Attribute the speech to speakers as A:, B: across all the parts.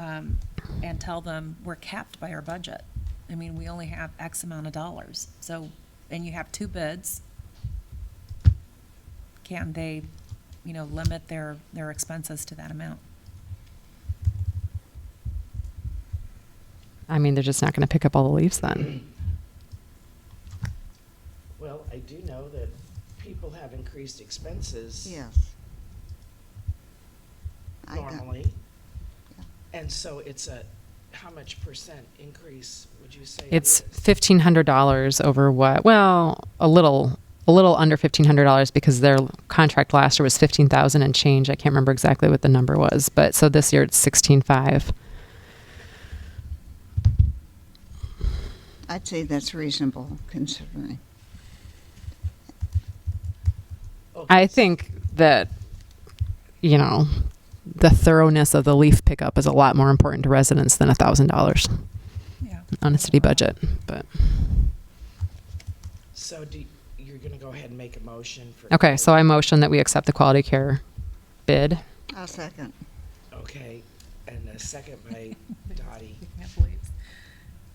A: um, and tell them we're capped by our budget. I mean, we only have X amount of dollars, so, and you have two bids. Can they, you know, limit their, their expenses to that amount?
B: I mean, they're just not going to pick up all the leaves then.
C: Well, I do know that people have increased expenses.
D: Yes. I got-
C: Normally.
D: Yeah.
C: And so it's a, how much percent increase would you say? it
B: It's
C: is?
B: fifteen hundred dollars over what? Well, a little, a little under fifteen hundred dollars because their contract last year was fifteen thousand and change. I can't remember exactly what the number was, but so this year it's sixteen five.
D: I'd say that's reasonable considering.
B: I
C: Okay, so-
B: think that, you know, the thoroughness of the leaf pickup is a lot more important to residents than a thousand dollars
A: Yeah.
B: on a city budget. But
C: So do, you're gonna go ahead and make a motion for.
B: okay, so I motion that we accept the quality care bid.
D: I'll second.
C: Okay, and a second by Dottie.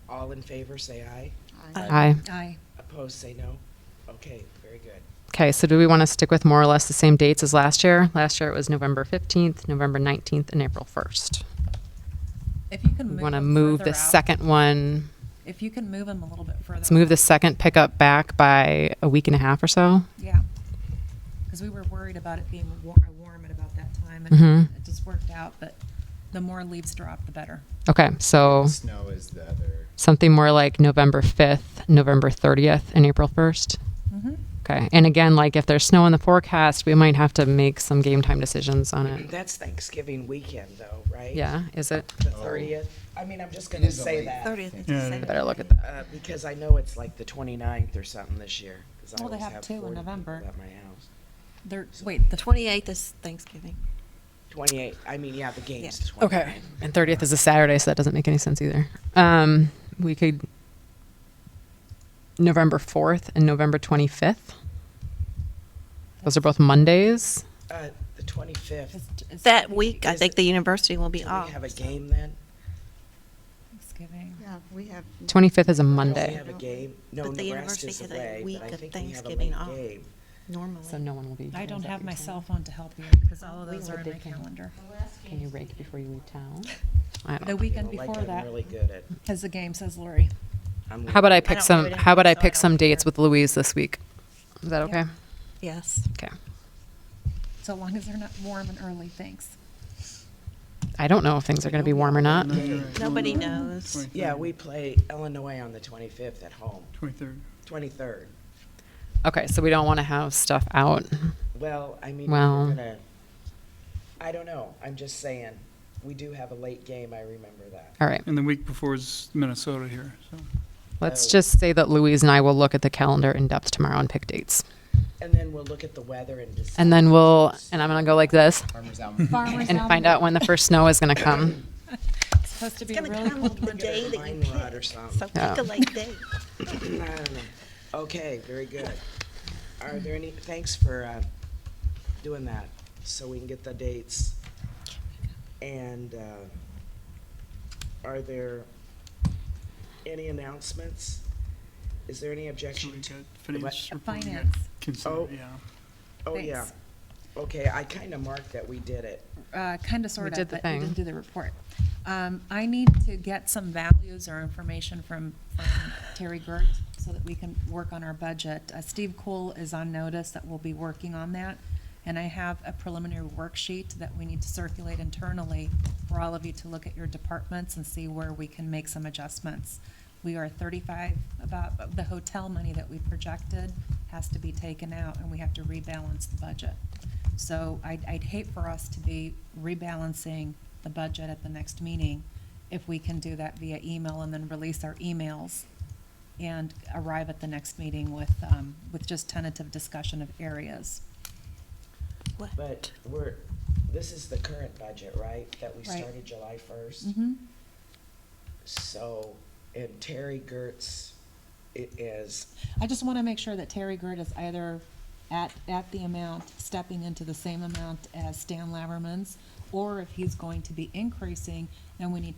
C: All in favor, say aye.
D: I-
B: Aye.
A: Aye.
C: Opposed, say no. Okay, very good.
B: Okay, so do we want to stick with more or less the same dates as last year? Last year it was November 15th, November 19th, and April 1st.
A: If you can move
B: We want to
A: them
B: move
A: further out-
B: the second one,
A: If you can move them a little bit further.
B: let's
A: out.
B: move the second pickup back by a week and a half or so.
A: Yeah, because we were worried about it being wa- warm at about that time, and
B: Mhm.
A: it just worked out, but the more leaves drop, the better.
B: Okay, so
E: Snow is the other.
B: something more like November 5th, November 30th, and April 1st.
A: Mhm.
B: Okay, and again, like if there's snow in the forecast, we might have to make some game time decisions on it.
C: That's Thanksgiving weekend though, right?
B: Yeah, is it?
C: The thirtieth. I mean, I'm just gonna
E: is a
C: say
E: late-
C: that,
D: 30th is
F: Yeah.
D: the same.
B: Better look at that.
C: uh, because I know it's like the 29th or something this year. 'cause I
A: Well, they
C: always
A: have two in
C: 40 people
A: November.
C: At my house.
A: There, wait, the
G: Twenty-eighth is Thanksgiving.
C: Twenty-eight, I mean, yeah, the game's the
B: Okay.
C: 29th.
B: And 30th is a Saturday, so that doesn't make any sense either. Um, we could November 4th and November 25th. Those are both Mondays.
C: Uh, the twenty-fifth.
A: is- is
G: That week, I
C: Is
G: think
C: it-
G: the university will be
C: Do
G: off.
C: we have a game then?
A: Thanksgiving.
D: Yeah, we have.
B: 25th is a
C: Don't
B: Monday.
C: We have a game? No,
G: But
C: Nebraska
G: the university
C: is
G: has a
C: away,
G: week
C: but I
G: of
C: think we have a
G: Thanksgiving
C: late
G: off.
C: game.
B: So
G: Normally.
B: no one will be.
A: I
B: is
A: don't
B: that
A: have
B: what
A: my
B: you're saying?
A: cell phone to help you, because all of
B: We
A: those
B: know
A: are in
B: they
A: my
B: can-
A: calendar.
B: Can you rake before you leave town? I don't
A: The
B: know.
A: weekend
C: Like,
A: before
C: I'm
A: that,
C: really good at-
A: because the game says Lori.
C: I'm
B: How about I
C: really-
B: pick
G: don't do
B: some?
G: it
B: How about I
G: anyway, so I
B: pick some
G: don't
B: dates
G: care.
B: with Louise this week? Is that okay?
A: Yeah.
G: Yes.
B: Okay.
A: So long as they're not warm and early, thanks.
B: I don't know if things are going to be warm or not.
G: Nobody knows.
C: Yeah, we play Illinois on the twenty-fifth at home,
F: Twenty-third.
C: twenty-third.
B: Okay, so we don't want to have stuff out.
C: Well, I mean, we're
B: Well-
C: gonna, I don't know, I'm just saying, we do have a late game, I remember that.
B: All right.
F: And the week before is Minnesota here, so.
B: Let's
C: Oh.
B: just say that Louise and I will look at the calendar in depth tomorrow and pick dates.
C: And then we'll look at the weather and decide.
B: And then we'll, and I'm going to go like this
E: Farmers out.
A: Farmers
B: and find out when the first snow is going to come.
A: It's supposed to be
G: It's gonna
A: really
G: come
A: cold.
G: the day that you
C: Mine rod or
G: pick, so
C: something.
B: Yeah.
G: pick a late date.
C: I don't know. Okay, very good. Are there any, thanks for, uh, doing that, so we can get the dates. And, uh, are there any announcements? Is there any
F: So we
C: objection to?
F: got finance report, we got
A: Finance,
F: Consider,
C: Oh.
F: yeah.
C: Oh, yeah.
A: thanks.
C: Okay, I kinda marked that we did it.
A: Uh, kinda, sorta,
B: did the
A: but you
B: thing.
A: didn't do the report. Um, I need to get some values or information from, from Terry Gert so that we can work on our budget. Uh, Steve Cole is on notice that we'll be working on that. And I have a preliminary worksheet that we need to circulate internally for all of you to look at your departments and see where we can make some adjustments. We are thirty-five, about, the hotel money that we projected has to be taken out and we have to rebalance the budget. So I'd, I'd hate for us to be rebalancing the budget at the next meeting if we can do that via email and then release our emails and arrive at the next meeting with, um, with just tentative discussion of areas.
G: What?
C: But we're, this is the current budget, right, that we
A: Right.
C: started July first?
A: Mm-hmm.
C: So, and Terry Gertz i- is,
A: I just want to make sure that Terry Gert is either at, at the amount, stepping into the same amount as Stan Laverman's, or if he's going to be increasing, then we need to